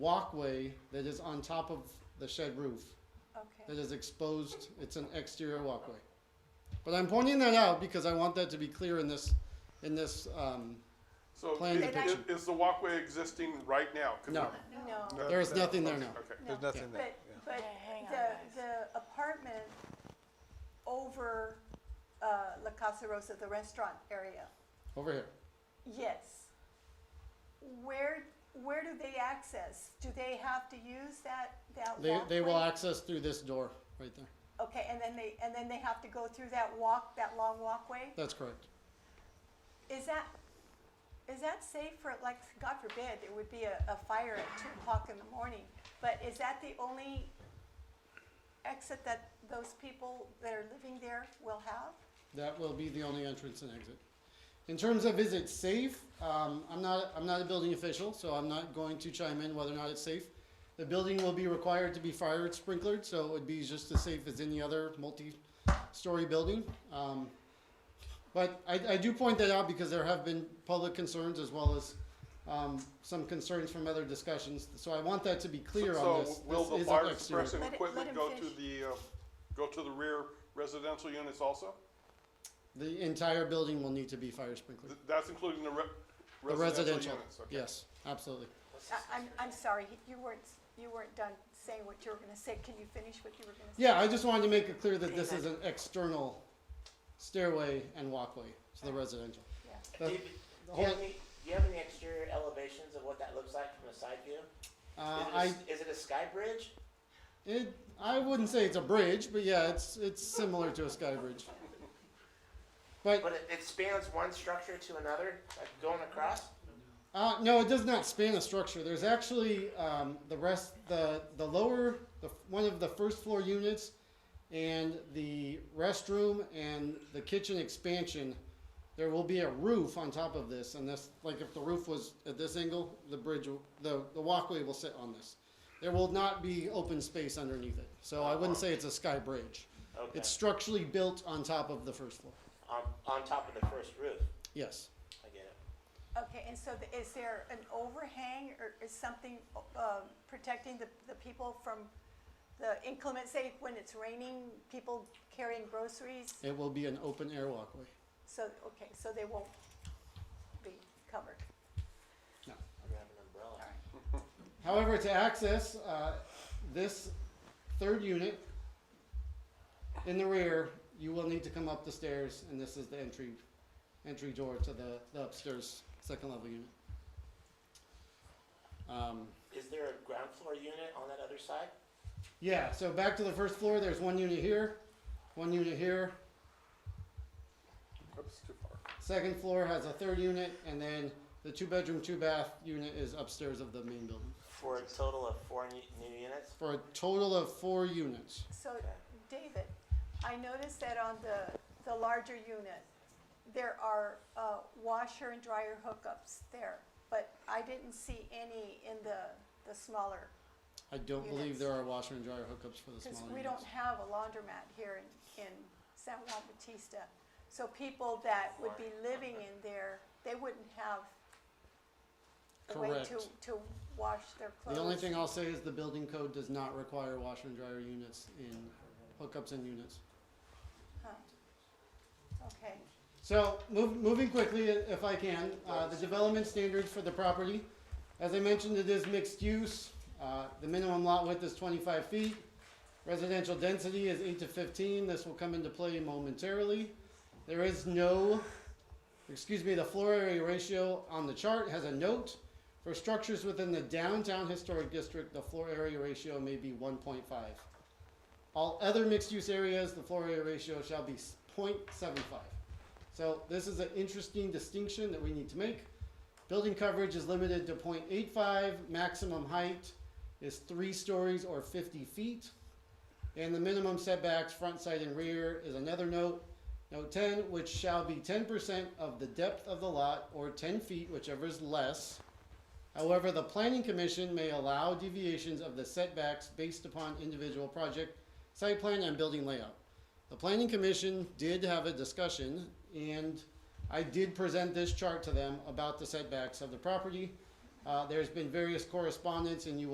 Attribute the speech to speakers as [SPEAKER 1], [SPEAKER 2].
[SPEAKER 1] walkway that is on top of the shed roof that
[SPEAKER 2] Okay,
[SPEAKER 1] is exposed. It's an exterior walkway. But I'm pointing that out because I want that to be clear in this, in this, um,
[SPEAKER 3] So
[SPEAKER 1] Plan
[SPEAKER 3] is-
[SPEAKER 1] depiction.
[SPEAKER 3] is the walkway existing right now? 'Cause
[SPEAKER 1] no,
[SPEAKER 2] no,
[SPEAKER 1] there is nothing there now.
[SPEAKER 3] Okay.
[SPEAKER 4] There's nothing there,
[SPEAKER 2] but,
[SPEAKER 4] yeah.
[SPEAKER 2] but
[SPEAKER 5] Yeah, hang on, guys.
[SPEAKER 2] the, the apartment over, uh, La Casa Rosa, the restaurant area,
[SPEAKER 1] Over here.
[SPEAKER 2] yes. Where, where do they access? Do they have to use that, that
[SPEAKER 1] They,
[SPEAKER 2] walkway?
[SPEAKER 1] they will access through this door right there.
[SPEAKER 2] Okay, and then they, and then they have to go through that walk, that long walkway?
[SPEAKER 1] That's correct.
[SPEAKER 2] Is that, is that safe for, like, God forbid, it would be a, a fire at two o'clock in the morning, but is that the only exit that those people that are living there will have?
[SPEAKER 1] That will be the only entrance and exit. In terms of is it safe, um, I'm not, I'm not a building official, so I'm not going to chime in whether or not it's safe. The building will be required to be fire sprinklered, so it would be just as safe as any other multi-story building. Um, but I, I do point that out because there have been public concerns as well as, um, some concerns from other discussions. So I want that to be clear
[SPEAKER 3] So-
[SPEAKER 1] on this.
[SPEAKER 3] So will
[SPEAKER 1] This
[SPEAKER 3] the
[SPEAKER 1] is
[SPEAKER 3] fire
[SPEAKER 1] exterior.
[SPEAKER 3] suppression
[SPEAKER 2] Let it-
[SPEAKER 3] equipment
[SPEAKER 2] let
[SPEAKER 3] go
[SPEAKER 2] him
[SPEAKER 3] to the, uh, go to the rear residential units also?
[SPEAKER 1] The entire building will need to be fire sprinklered.
[SPEAKER 3] Th- That's including the re-
[SPEAKER 1] The
[SPEAKER 3] residential
[SPEAKER 1] residential,
[SPEAKER 3] units? okay.
[SPEAKER 1] yes, absolutely.
[SPEAKER 2] I, I'm, I'm sorry, you weren't, you weren't done saying what you were gonna say, can you finish what you were gonna say?
[SPEAKER 1] Yeah, I just wanted to make it clear that this is an external stairway and walkway to the residential. The-
[SPEAKER 6] David,
[SPEAKER 1] Uh, the
[SPEAKER 6] do you, have
[SPEAKER 1] whole-
[SPEAKER 6] any, do you have any exterior elevations of what that looks like from a side view?
[SPEAKER 1] Uh,
[SPEAKER 6] is,
[SPEAKER 1] I,
[SPEAKER 6] it a, is it a sky bridge?
[SPEAKER 1] it, I wouldn't say it's a bridge, but yeah, it's, it's similar to a sky bridge. But,
[SPEAKER 6] But it, it spans one structure to another, like going across?
[SPEAKER 1] uh, no, it does not span a structure. There's actually, um, the rest, the, the lower, the, one of the first floor units and the restroom and the kitchen expansion, there will be a roof on top of this, and this, like if the roof was at this angle, the bridge, will- the, the walkway will sit on this. There will not be open space underneath it, so I wouldn't say it's a sky bridge.
[SPEAKER 6] Okay.
[SPEAKER 1] It's structurally built on top of the first floor,
[SPEAKER 6] on, on top of the first roof.
[SPEAKER 1] yes.
[SPEAKER 6] I get it.
[SPEAKER 2] Okay, and so the- is there an overhang or is something, um, protecting the, the people from the inclement, say, when it's raining, people carrying groceries?
[SPEAKER 1] It will be an open air walkway,
[SPEAKER 2] So, okay, so they won't be covered.
[SPEAKER 6] I'm gonna have an umbrella.
[SPEAKER 1] However, to access uh, this third unit in the rear, you will need to come up the stairs, and this is the entry entry door to the, the upstairs second level unit. Um,
[SPEAKER 6] Is there a ground floor unit on that other side?
[SPEAKER 1] yeah, so back to the first floor. There's one unit here, one unit here.
[SPEAKER 3] Oops, too far.
[SPEAKER 1] Second floor has a third unit, and then the two bedroom, two bath unit is upstairs of the main building
[SPEAKER 6] For a total of four new, new units?
[SPEAKER 1] for a total of four units.
[SPEAKER 2] So, David, I noticed that on the, the larger unit, there are uh, washer and dryer hookups there, but I didn't see any in the, the smaller,
[SPEAKER 1] I don't believe
[SPEAKER 2] Units.
[SPEAKER 1] there are washer and dryer hookups for the smaller
[SPEAKER 2] because
[SPEAKER 1] units.
[SPEAKER 2] we don't have a laundromat here in, in San Juan Bautista. So people that would be living in there, they wouldn't have a way to,
[SPEAKER 1] Correct.
[SPEAKER 2] to wash their clothes.
[SPEAKER 1] The only thing I'll say is the building code does not require washer and dryer units in hookups and units.
[SPEAKER 2] Huh. Okay,
[SPEAKER 1] So, move, moving quickly, i- if I can, uh, the development standards for the property. As I mentioned, it is mixed use. Uh, the minimum lot width is twenty-five feet. Residential density is eight to fifteen. This will come into play momentarily. There is no, excuse me, the floor area ratio on the chart has a note. For structures within the downtown historic district, the floor area ratio may be one point five. All other mixed-use areas, the floor area ratio shall be 0.75. So this is an interesting distinction that we need to make. Building coverage is limited to 0.85. maximum height is three stories or fifty feet. And the minimum setbacks, front, side, and rear is another note. Note ten, which shall be ten percent of the depth of the lot or ten feet, whichever is less. However, the planning commission may allow deviations of the setbacks based upon individual project, site plan, and building layout. The planning commission did have a discussion, and I did present this chart to them about the setbacks of the property. Uh, there's been various correspondence, and you will.